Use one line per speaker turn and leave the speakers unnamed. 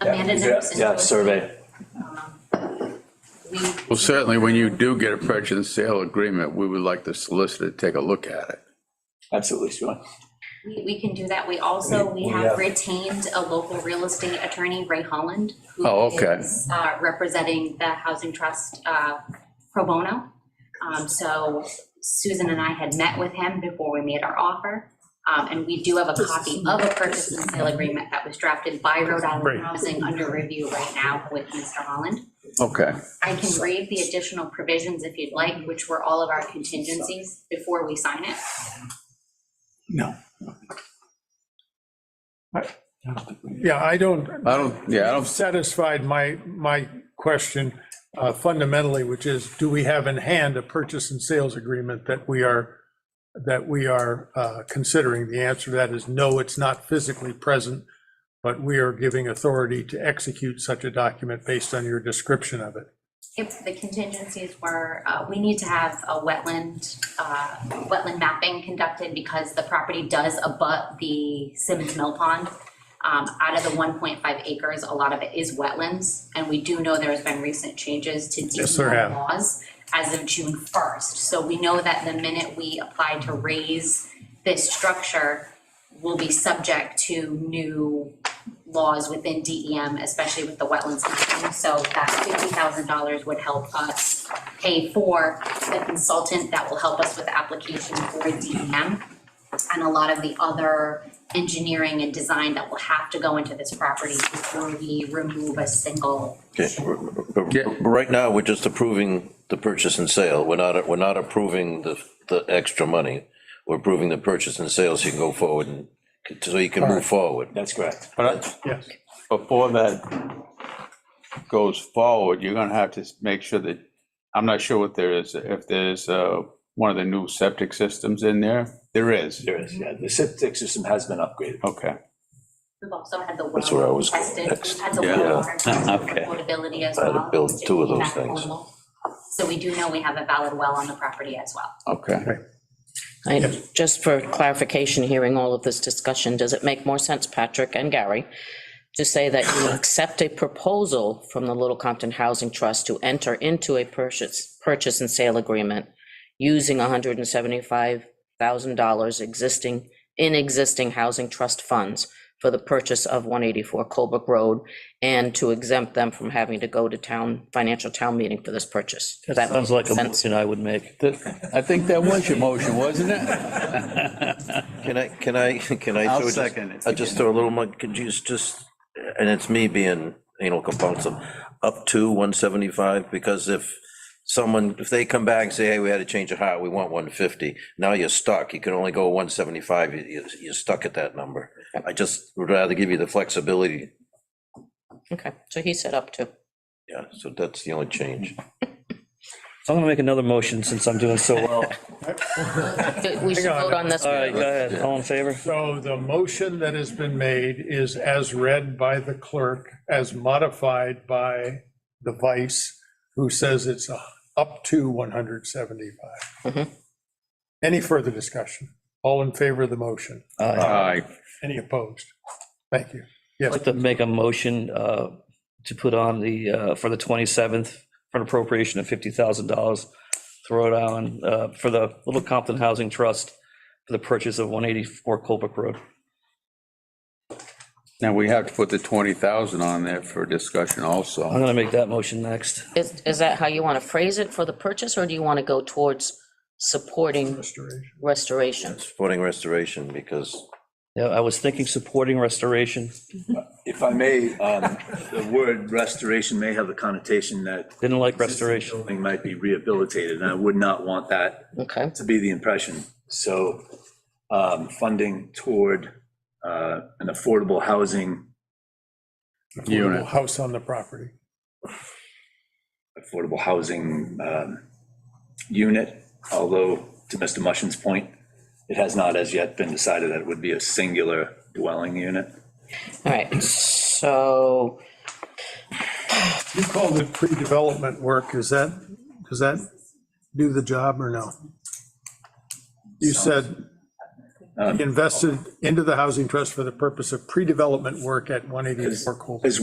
Amanda
yeah,
Nicholson.
yeah,
posted,
survey.
um, We,
Well, certainly, when you do get a purchase and sale agreement, we would like the solicitor to take a look at it.
Absolutely, Stuart.
we, we can do that. We also, we
we
have
have-
retained a local real estate attorney, Ray Holland. who
Oh, okay.
is, Uh, representing the Housing Trust, uh, pro bono. Um, so Susan and I had met with him before we made our offer. Um, and we do have a copy of a purchase and sale agreement that was drafted by Rhode Island
Great.
Housing under review right now with Mr. Holland.
Okay,
I can read the additional provisions if you'd like, which were all of our contingencies before we sign it.
No.
Yeah, I don't,
I don't, yeah, I
I've
don't,
satisfied my, my question uh, fundamentally, which is, do we have in hand a purchase and sales agreement that we are, that we are uh, considering? The answer to that is no, it's not physically present, but we are giving authority to execute such a document based on your description of it.
If the contingencies were, uh, we need to have a wetland, uh, wetland mapping conducted because the property does abut the Simmons Mill Pond. Um, out of the one point five acres, a lot of it is wetlands, and we do know there's been recent changes to
Yes, there
DEP
have.
laws as of June first. So we know that the minute we apply to raise this structure, will be subject to new laws within DEM, especially with the wetlands issue. So that fifty thousand dollars would help us pay for the consultant that will help us with the application for DEM. And a lot of the other engineering and design that will have to go into this property before we remove a single.
Okay, but-
Yeah.
but right now, we're just approving the purchase and sale. We're not, we're not approving the, the extra money. We're approving the purchase and sale so you can go forward and, so you can move forward.
That's correct.
but I-
Yes.
before that goes forward, you're gonna have to make sure that, I'm not sure what there is, if there's, uh, one of the new septic systems in there, there is,
There is, yeah, the septic system has been upgraded.
okay.
We've also had the
That's where I
well
was going
tested,
next.
we've had the
Yeah.
well water tested for
Okay.
potability as
I had
well.
to build
which is
two of those
back
things.
affordable. So we do know we have a valid well on the property as well.
Okay.
I- Just for clarification, hearing all of this discussion, does it make more sense, Patrick and Gary, to say that you accept a proposal from the Little Compton Housing Trust to enter into a purchase, purchase and sale agreement using $175,000 existing, in existing housing trust funds for the purchase of 184 Colebrook Road and to exempt them from having to go to town, financial town meeting for this purchase? Does
That
make
sounds like a
sense?
motion I would make.
I think that was your motion, wasn't it?
Can I, can I, can I?
I'll
throw just-
second it.
I'll just throw a little more, could you just, and it's me being anal compulsive, up to 175, because if someone, if they come back and say, hey, we had a change of heart, we want 150, now you're stuck, you can only go 175, You- you- you're stuck at that number. I just would rather give you the flexibility,
Okay, so he said up to.
yeah, so that's the only change.
So I'm gonna make another motion since I'm doing so well.
We should
Hang on.
vote on this.
All right, go ahead, all in favor?
So the motion that has been made is as read by the clerk, as modified by the vice, who says it's up to 175.
Mhm.
Any further discussion? All in favor of the motion?
Aye.
Aye.
Any opposed? Thank you.
I'd like to make a motion uh, to put on the, uh, for the 27th, for an appropriation of $50,000, throw it on uh, for the Little Compton Housing Trust for the purchase of 184 Colebrook Road.
Now, we have to put the 20,000 on there for discussion
I'm
also.
gonna make that motion next.
Is, is that how you want to phrase it for the purchase, or do you want to go towards supporting
Restoration.
restoration?
Supporting restoration, because
Yeah, I was thinking supporting restoration,
If I may, um, the word restoration may have the connotation that
didn't like restoration.
building might be rehabilitated, and I would not want that
Okay,
to be the impression. So um, funding toward uh, an affordable housing,
Unit.
House on the property.
affordable housing um, unit, although to Mr. Mushin's point, it has not as yet been decided that it would be a singular dwelling unit.
all right, so
You called it pre-development work. Is that, does that do the job or no? You said invested into the housing trust for the purpose of pre-development work at 184 Colebrook.